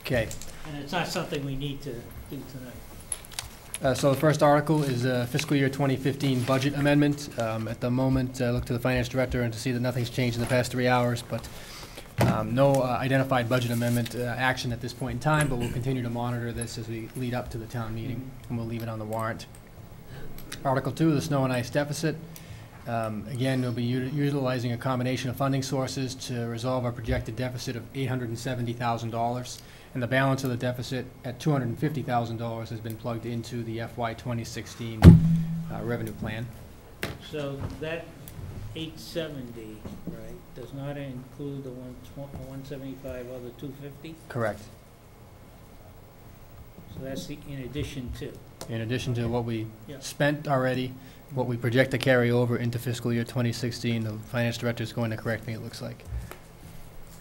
Okay, And it's not something we need to do tonight. uh, so the first article is uh, fiscal year 2015 budget amendment. Um, At the moment, I look to the finance director and to see that nothing's changed in the past three hours, but um, no uh, identified budget amendment uh, action at this point in time, but we'll continue to monitor this as we lead up to the town meeting, and we'll leave it on the warrant. Article two, the snow and ice deficit. Um, Again, we'll be uti- utilizing a combination of funding sources to resolve our projected deficit of $870,000. And the balance of the deficit at $250,000 has been plugged into the FY 2016 uh, revenue plan. So that eight seventy, right, does not include the one one seventy-five or the two fifty? Correct. So that's the, in addition to. In addition to what we Yeah. spent already, what we project to carry over into fiscal year 2016, the finance director is going to correct me, it looks like.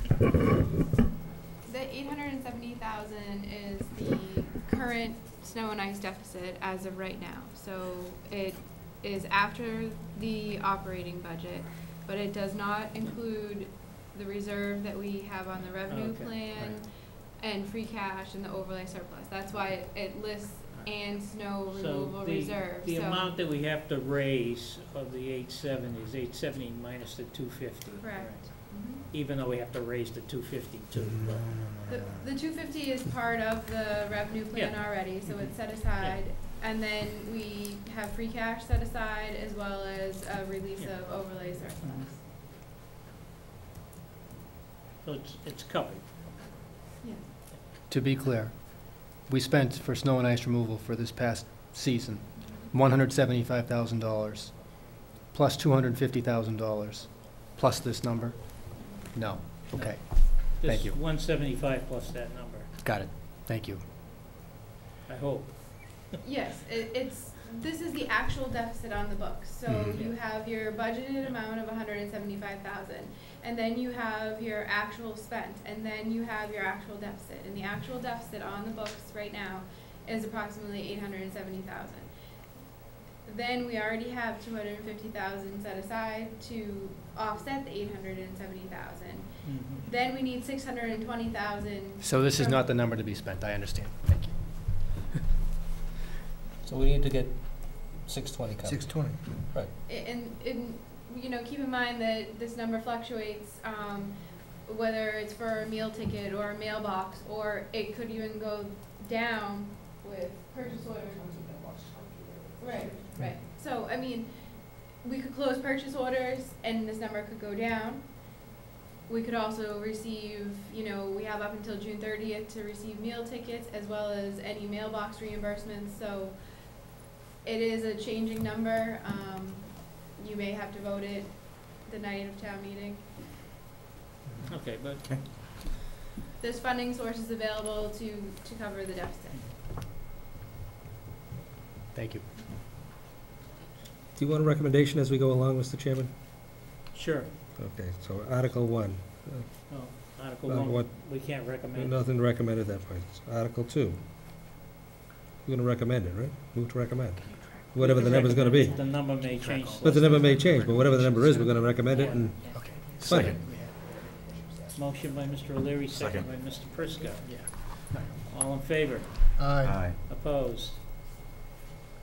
The eight hundred and seventy thousand is the current snow and ice deficit as of right now. So it is after the operating budget, but it does not include the reserve that we have on the revenue Okay, plan and free cash and the overlay surplus. That's why it lists and snow So removal the- reserve, The so, amount that we have to raise of the eight seventy is eight seventy minus the two fifty. correct. Mhm. Even though we have to raise the two fifty too, Mm-hmm. but. The, the two fifty is part of the revenue plan already, so it's set aside. And then we have free cash set aside as well as a release Yeah. of overlay surplus. Mhm. So it's, it's covered. Yes, To be clear, we spent for snow and ice removal for this past season, $175,000, plus $250,000, plus this number? No. Okay, Thank you. This one seventy-five plus that number, got it. Thank you. I hope. Yes, it, it's, this is the actual deficit on the books. So Mhm. you have your budgeted amount of hundred and seventy-five thousand. And then you have your actual spent, and then you have your actual deficit. And the actual deficit on the books right now is approximately eight hundred and seventy thousand. Then we already have two hundred and fifty thousand set aside to offset the eight hundred and seventy thousand. Mhm. Then we need six hundred and twenty thousand So this is not the number to be spent, I understand. Thank you. So we need to get six twenty covered. Six twenty. I- And, and, you know, keep in mind that this number fluctuates, um, whether it's for a meal ticket or a mailbox, or it could even go down with purchase orders. Right, right. So, I mean, we could close purchase orders and this number could go down. We could also receive, you know, we have up until June thirtieth to receive meal tickets as well as any mailbox reimbursements, so it is a changing number, um, you may have to vote it the night of town meeting. Okay, but There's funding sources available to, to cover the deficit. Thank you. Do you want a recommendation as we go along, Mr. Chairman? sure, Okay, so Article one, no, Oh, Article Uh, what- one, we can't recommend. nothing to recommend at that point. Article two. You're gonna recommend it, right? Move to recommend. Whatever the number's gonna be. The number may change. But the number may change, but whatever the number is, we're gonna recommend it and Okay. Second. Motion by Mr. O'Leary, second by Mr. Prisco. All in favor? Uh, Aye. Opposed?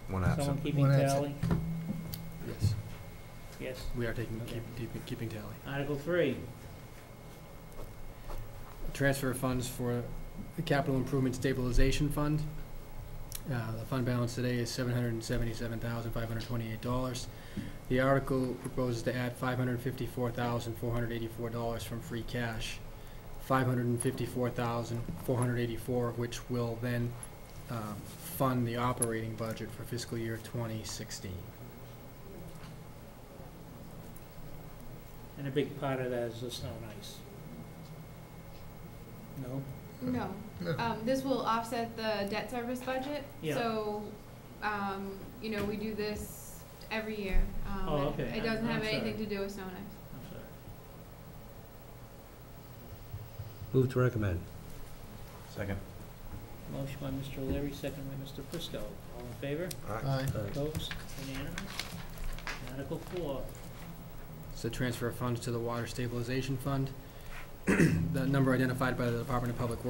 One Someone keeping One absent. tally? Yes, Yes. we are taking, keep- keep- keeping tally. Article three, transfer of funds for the Capital Improvement Stabilization Fund. Uh, The fund balance today is seven hundred and seventy-seven thousand, five hundred and twenty-eight dollars. The article proposes to add five hundred and fifty-four thousand, four hundred and eighty-four dollars from free cash, five hundred and fifty-four thousand, four hundred and eighty-four, of which will then um, fund the operating budget for fiscal year twenty sixteen. and a big part of that is the snow and ice. No? No, um, this will offset the debt service budget, Yeah. so, um, you know, we do this every year. Um, Oh, it- okay. It doesn't I'm- have I'm sorry. anything to do with snow and ice. I'm sorry. move to recommend. Second. Motion by Mr. O'Leary, second by Mr. Prisco. All in favor? Aye. Opposed? Unanimous? Article four, It's the transfer of funds to the Water Stabilization Fund. The number identified by the Department of Public Works